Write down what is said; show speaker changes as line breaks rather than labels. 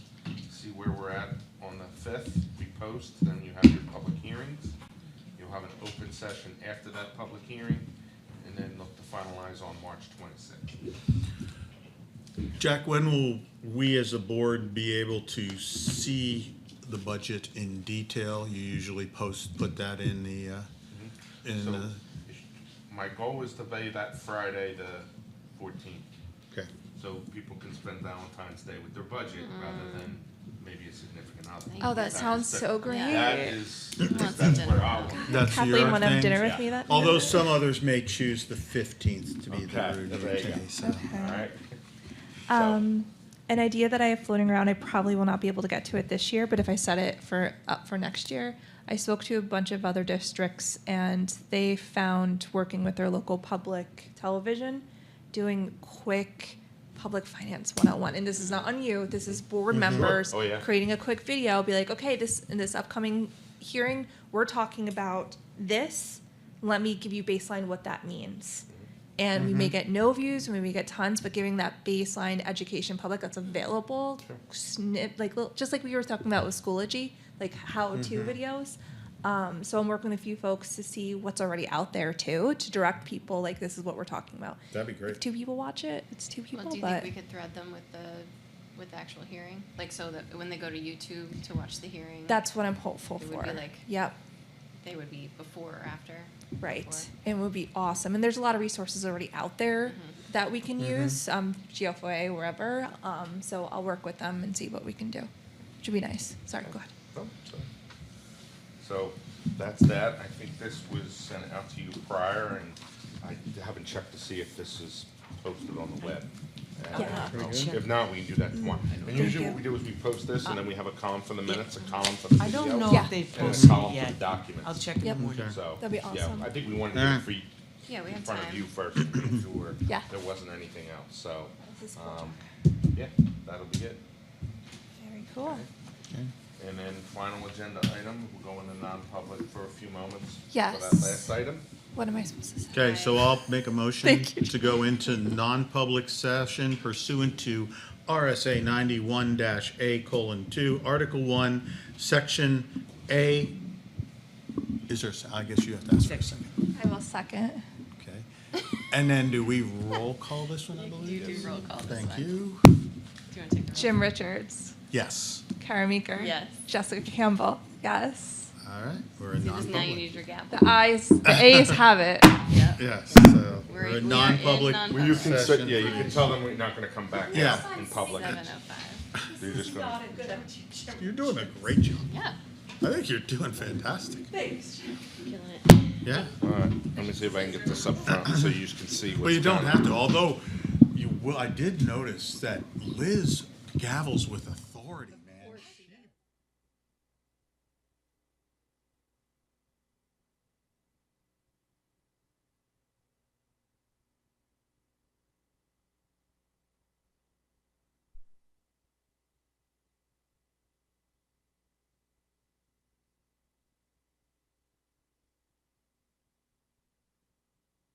we're at on the fifth, we post, then you have your public hearings. You'll have an open session after that public hearing, and then look to finalize on March twenty-sixth.
Jack, when will we as a board be able to see the budget in detail? You usually post, put that in the, uh, in
Mm-hmm. So,
uh, the,
my goal is to be that Friday, the fourteenth,
okay,
so people can spend Valentine's Day with their budget rather than maybe a significant holiday.
Mm-hmm. Oh, that sounds so great.
That is,
Lots of
that's where
dinner.
I want.
that's your thing?
Kathleen want to have dinner with me that
Although some others may choose the fifteenth to be
Okay,
the
there you
routine
go.
day, so.
Okay.
All right.
Um, an idea that I have floating around, I probably will not be able to get to it this year, but if I set it for up for next year, I spoke to a bunch of other districts and they found working with their local public television, doing quick public finance 101 and this is not on you this is board members
Oh, yeah.
creating a quick video be like okay this in this upcoming hearing we're talking about this let me give you baseline what that means and we may get no views, we may get tons, but giving that baseline education public that's available,
Sure.
snip, like little- just like we were talking about with Schoology, like how-to videos. Um, so I'm working with a few folks to see what's already out there too, to direct people like this is what we're talking about.
That'd be
If two people watch it, it's two people,
Well, do you
but
think we could thread them with the, with the actual hearing? Like, so that when they go to YouTube to watch the hearing,
that's what I'm hopeful
It
for.
would be like-
yep.
they would be before or after?
Right.
Before.
It would be awesome. And there's a lot of resources already out there that we can use, um, GFOA, wherever. Um, so I'll work with them and see what we can do. Should be nice. Sorry, go ahead.
Oh, so- So that's that. I think this was sent out to you prior, and I haven't checked to see if this is posted on the web. And,
Yeah.
uh, If not, we can do
Mm.
that tomorrow. And usually what we do is we post this, and then we have a column for the minutes, a column for the
I
video.
don't know
Yeah.
if they've
And a
posted
column for
yet.
the documents.
I'll check in the
Yep.
morning.
So,
That'd be awesome.
yeah, I think we wanted to get
Yeah.
it free
Yeah, we
in
have
front of you
time.
first, to make sure
Yeah.
there wasn't anything else, so.
This is cool.
um, Yeah, that'll be it.
Very cool.
And then final agenda item, we'll go into non-public for a few moments. For
Yes.
that last item.
What am I supposed to say?
Okay, so I'll make a motion
Thank you.
to go into non-public session pursuant to RSA ninety-one dash A colon two, Article one, Section A. Is there, a se- I guess you have to ask for a second,
I will second.
okay? And then do we roll call this one, I believe?
do roll call this
Thank
one.
you.
Do you want to take the roll?
Jim Richards,
Yes,
Kara Meeker.
Yes.
Jessica Campbell. Yes.
all right, we're in
See, this- Now you
non-public.
need your gavel.
The eyes, the A's have it.
Yeah.
Yes, so
We're-
we're
we are
in
in
non-public
non-
Well, you can,
Session.
say- yeah, you can tell them we're not gonna come back
Yeah.
in public.
Seven oh five.
You're just gonna,
You're doing a great job.
Yeah.
I think you're doing fantastic.
Killing it.
Yeah.
alright, let me see if I can get this up front so you can see what's.
Well, you don't
going
have
on.
to, although you will, I did notice that Liz gavels with a